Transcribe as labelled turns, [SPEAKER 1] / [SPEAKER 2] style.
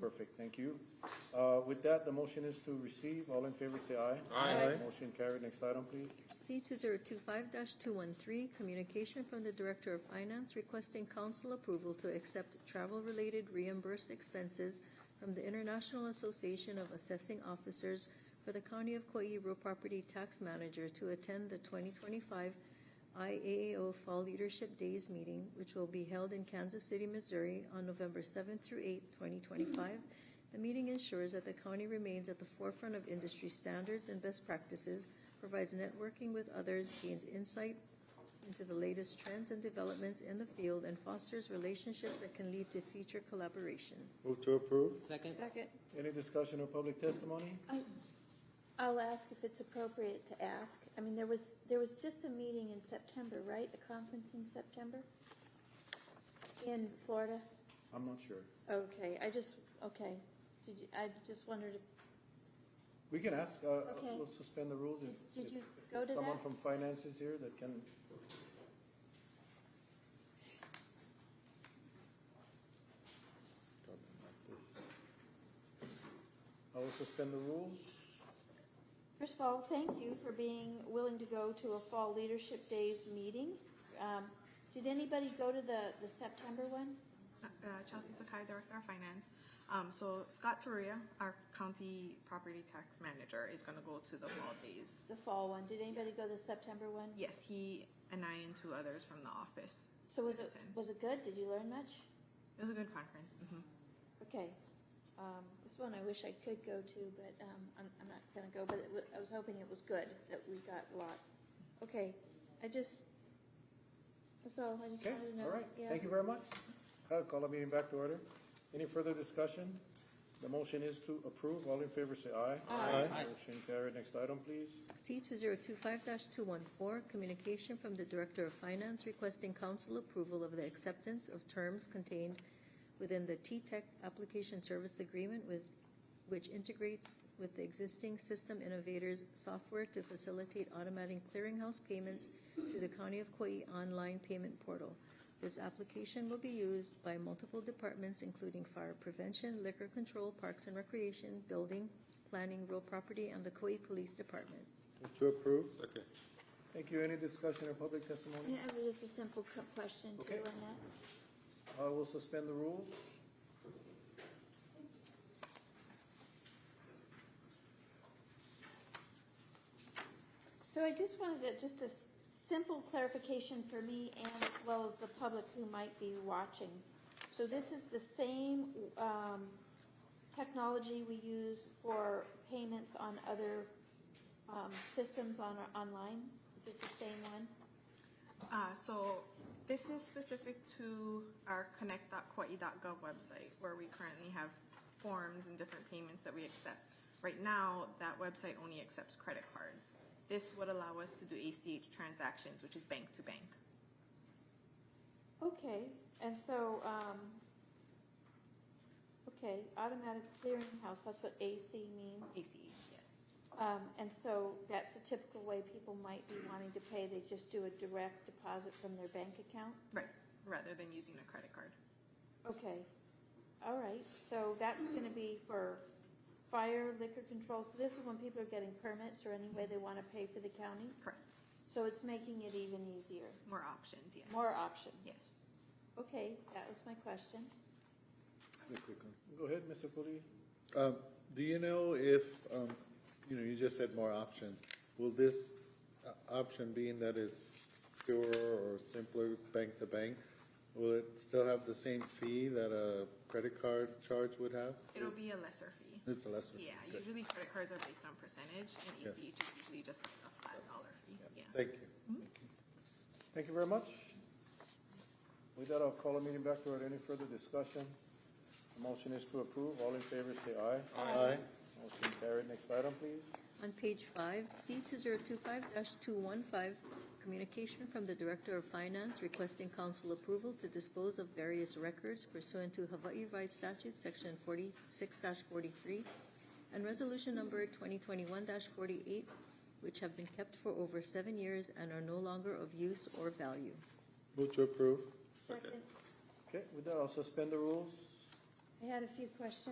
[SPEAKER 1] Perfect, thank you. Uh, With that, the motion is to receive. All in favor, say aye.
[SPEAKER 2] Aye. Aye.
[SPEAKER 1] Motion carried. Next item, please.
[SPEAKER 3] C two zero two five two one three, communication from the Director of Finance requesting council approval to accept travel-related reimbursed expenses from the International Association of Assessing Officers for the County of Coiebro Property Tax Manager to attend the twenty twenty-five IAAO Fall Leadership Days meeting, which will be held in Kansas City, Missouri on November seventh through eighth, twenty twenty-five. The meeting ensures that the county remains at the forefront of industry standards and best practices provides networking with others, gains insights into the latest trends and developments in the field, and fosters relationships that can lead to future collaborations.
[SPEAKER 1] Move to approve.
[SPEAKER 2] Second?
[SPEAKER 4] Second. Um,
[SPEAKER 1] Any discussion or public testimony?
[SPEAKER 4] I'll ask if it's appropriate to ask. I mean, there was, there was just a meeting in September, right? A conference in September? In Florida?
[SPEAKER 1] I'm not sure.
[SPEAKER 4] Okay, I just, okay. Did you, I just wondered, if-
[SPEAKER 1] We can ask, uh, uh,
[SPEAKER 4] Okay.
[SPEAKER 1] we'll suspend the rules. if-
[SPEAKER 4] Did- did you
[SPEAKER 1] if-
[SPEAKER 4] go
[SPEAKER 1] if
[SPEAKER 4] to
[SPEAKER 1] Someone
[SPEAKER 4] that?
[SPEAKER 1] from finance is here that can, I will suspend the rules.
[SPEAKER 4] first of all, thank you for being willing to go to a Fall Leadership Days meeting. Um, Did anybody go to the, the September one?
[SPEAKER 5] Uh, Chelsea Sakai, Director of Finance. Um, so Scott Toria, our county property tax manager, is going to go to the fall days.
[SPEAKER 4] The fall one? Did anybody go to the September one?
[SPEAKER 5] Yes, he and I and two others from the office.
[SPEAKER 4] So was it,
[SPEAKER 5] Attend.
[SPEAKER 4] was it good? Did you learn much?
[SPEAKER 5] It was a good conference. hmm
[SPEAKER 4] Okay. Um, this one I wish I could go to, but um, I'm, I'm not going to go. But it wa- I was hoping it was good that we got a lot. Okay. I just. That's all. I just
[SPEAKER 1] Okay,
[SPEAKER 4] wanted to know.
[SPEAKER 1] all right,
[SPEAKER 4] Yeah.
[SPEAKER 1] thank you very much. I'll call the meeting back to order. Any further discussion? The motion is to approve. All in favor, say aye. Aye. Motion carried. Next item, please.
[SPEAKER 3] C two zero two five two one four, communication from the Director of Finance requesting council approval of the acceptance of terms contained within the T-Tech Application Service Agreement with, which integrates with the existing System Innovators software to facilitate automatic clearinghouse payments through the County of Kauai online payment portal. This application will be used by multiple departments, including fire prevention, liquor control, parks and recreation, building, planning, real property, and the Kauai Police Department.
[SPEAKER 1] To approve.
[SPEAKER 2] Second.
[SPEAKER 1] Thank you. Any discussion or public testimony?
[SPEAKER 4] Yeah, it was just a simple cu- question too
[SPEAKER 1] Okay.
[SPEAKER 4] on that.
[SPEAKER 1] I will suspend the rules.
[SPEAKER 4] So I just wanted to, just a s- simple clarification for me and as well as the public who might be watching. So this is the same um, technology we use for payments on other um, systems on online? Is this the same one?
[SPEAKER 5] Uh, so this is specific to our connect.kauai.gov website where we currently have forms and different payments that we accept. Right now, that website only accepts credit cards. This would allow us to do ACH transactions, which is bank to bank.
[SPEAKER 4] Okay, and so, um, okay, automatic clearinghouse, that's what AC means?
[SPEAKER 5] ACH, yes.
[SPEAKER 4] Um, and so that's the typical way people might be wanting to pay. They just do a direct deposit from their bank account?
[SPEAKER 5] Right, rather than using a credit card.
[SPEAKER 4] Okay, all right, so that's gonna be for fire, liquor control, so this is when people are getting permits or any way they wanna pay for the county?
[SPEAKER 5] Correct.
[SPEAKER 4] So it's making it even easier,
[SPEAKER 5] More options, yes.
[SPEAKER 4] more options?
[SPEAKER 5] Yes.
[SPEAKER 4] Okay, that was my question.
[SPEAKER 6] Real quick one.
[SPEAKER 1] Go ahead, Mr. Pudi.
[SPEAKER 6] Um, Do you know if, um, you know, you just said more options, will this uh, option being that it's purer or simpler bank to bank, will it still have the same fee that a credit card charge would have?
[SPEAKER 5] It'll be a lesser fee.
[SPEAKER 6] It's a lesser. fee.
[SPEAKER 5] Yeah,
[SPEAKER 6] Okay.
[SPEAKER 5] usually credit cards are based on percentage, and
[SPEAKER 6] Yeah.
[SPEAKER 5] ACH is usually just like a flat dollar fee, yeah.
[SPEAKER 6] Thank you.
[SPEAKER 1] Thank you very much. With that, I'll call the meeting back to order. Any further discussion? The motion is to approve. All in favor, say aye.
[SPEAKER 6] Aye.
[SPEAKER 1] Motion carried. Next item, please.
[SPEAKER 3] On page five, C two zero two five two one five, communication from the Director of Finance requesting council approval to dispose of various records pursuant to Hawaii Revised Statute, section forty-six forty-three, and resolution number twenty twenty-one forty-eight, which have been kept for over seven years and are no longer of use or value.
[SPEAKER 6] Move to approve.
[SPEAKER 4] Second,
[SPEAKER 1] Okay, with that, I'll suspend the rules.
[SPEAKER 4] I had a few questions.